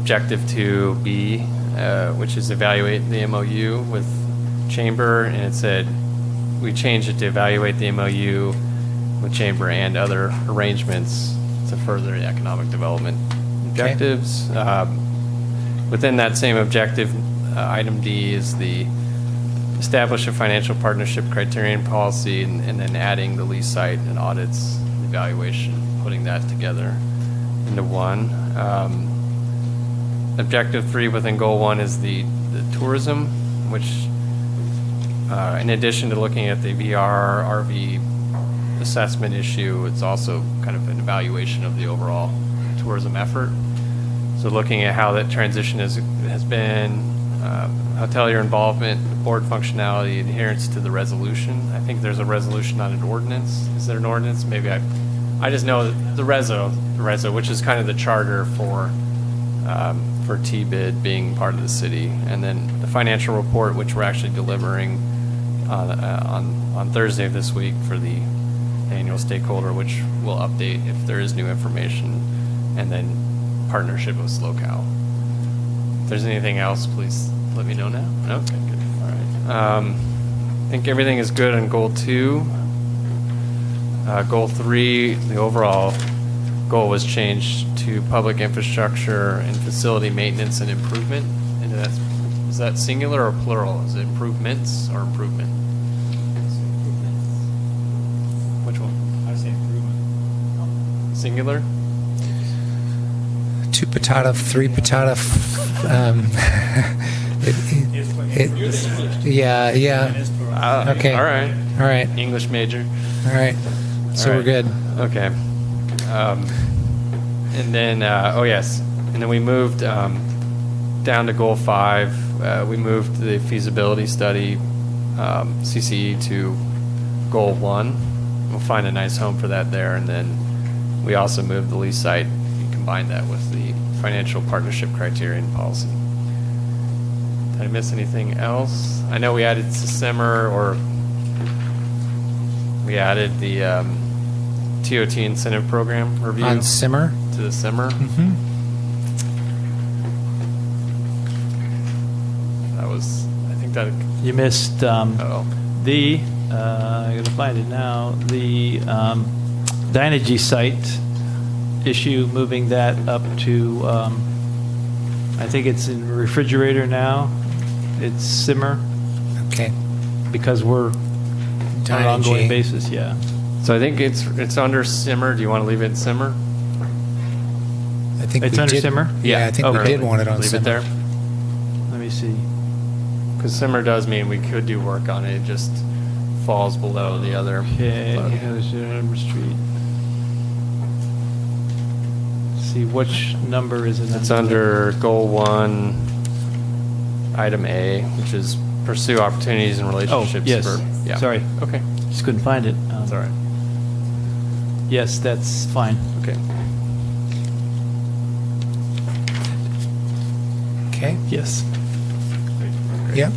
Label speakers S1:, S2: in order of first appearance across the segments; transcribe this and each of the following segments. S1: objective two B, uh, which is evaluate the MOU with Chamber, and it said, we changed it to evaluate the MOU with Chamber and other arrangements to further the economic development objectives. Um, Within that same objective, uh, item D is the establish a financial partnership criterion policy, and and then adding the lease site and audits evaluation, putting that together into one. Um, Objective three within goal one is the, the tourism, which, uh, in addition to looking at the VR, RV assessment issue, it's also kind of an evaluation of the overall tourism effort. So looking at how that transition has, has been, uh, hotelier involvement, board functionality, adherence to the resolution. I think there's a resolution, not an ordinance. Is there an ordinance? Maybe I, I just know that the reso, the reso, which is kind of the charter for, um, for T-bid being part of the city. And then the financial report, which we're actually delivering on, uh, on, on Thursday of this week for the annual stakeholder, which will update if there is new information. And then partnership with SlowCal. If there's anything else, please let me know now. No? Okay, good. All right. Um, I think everything is good on goal two. Uh, goal three, the overall goal was changed to public infrastructure and facility maintenance and improvement. And that's, is that singular or plural? Is it improvements or improvement? Which one?
S2: I say improvement.
S1: Singular?
S3: two patata, three patata. f- Um, it,
S2: It's what-
S3: it, it, yeah, yeah.
S2: It's plural.
S1: Ah,
S3: Okay.
S1: All right.
S3: All right,
S1: English major.
S3: all right. So
S1: All
S3: we're
S1: right.
S3: good.
S1: Okay. Um, and then, uh, oh yes, and then we moved um, down to goal five. Uh, we moved the feasibility study um, CCE to goal one. We'll find a nice home for that there, and then we also moved the lease site and combined that with the financial partnership criterion policy. Did I miss anything else? I know we added Simmer or we added the um, TOT incentive program review
S3: On simmer.
S1: to the simmer.
S3: hmm
S1: That was, I think that.
S4: You missed um,
S1: Oh,
S4: the, uh, I gotta find it now, the um, Dynegy site issue, moving that up to, um, I think it's in refrigerator now, it's simmer,
S3: Okay.
S4: because we're on an
S3: Dynegy.
S4: ongoing basis, yeah.
S1: so I think it's it's under simmer. Do you want to leave it in simmer?
S3: I think
S4: It's
S3: we
S4: under
S3: did,
S4: simmer?
S3: Yeah, I think we
S1: Okay.
S3: did want it on
S1: Oh, leave
S3: simmer.
S1: it there
S4: Let me see.
S1: because simmer does mean we could do work on it. It just falls below the other.
S4: Okay,
S1: but-
S4: there's your number street. See, which number is it?
S1: It's under goal one, item A, which is pursue opportunities and relationships.
S4: yes.
S1: For, yeah.
S4: Sorry.
S1: Okay.
S4: Just couldn't find it. Um,
S1: That's all right.
S4: Yes, that's fine.
S1: Okay.
S3: Okay.
S4: Yes.
S3: Yep.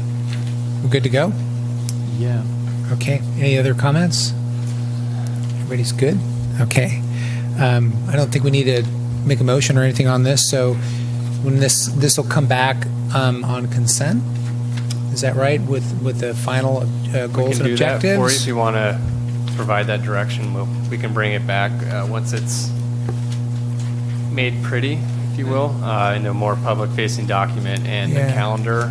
S3: We're good to go.
S4: Yeah.
S3: Okay. Any other comments? Everybody's good? Okay. Um, I don't think we need to make a motion or anything on this, so when this, this will come back um, on consent? Is that right, with, with the final uh,
S1: We
S3: goals
S1: can do
S3: and
S1: that for you if
S3: objectives?
S1: you want to provide that direction. We'll- We can bring it back uh, once it's made pretty, if you will, uh, in a more public-facing document and a
S3: Mm-hmm. Yeah.
S1: calendar,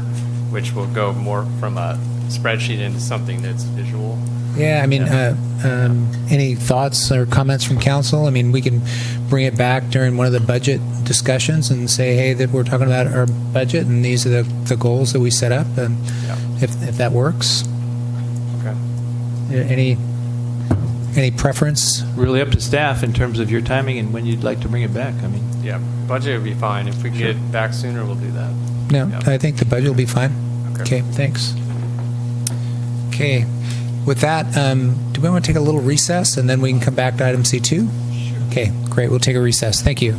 S1: which will go more from a spreadsheet into something that's visual.
S3: Yeah, I mean, uh, um, any thoughts or comments from council? I mean, we can bring it back during one of the budget discussions and say, hey, that we're talking about our budget, and these are the, the goals that we set up, and
S1: Yeah.
S3: if, if that works.
S1: Okay.
S3: Any, any preference?
S4: Really up to staff in terms of your timing and when you'd like to bring it back. I mean,
S1: Yeah, budget would be fine. If we
S4: Sure.
S1: get it back sooner, we'll do that.
S3: No,
S1: Yeah.
S3: I think the budget will be fine. Okay, thanks. Okay, with that, um, do we want to take a little recess, and then we can come back to item C2? Sure. Okay, great, we'll take a recess. Thank you.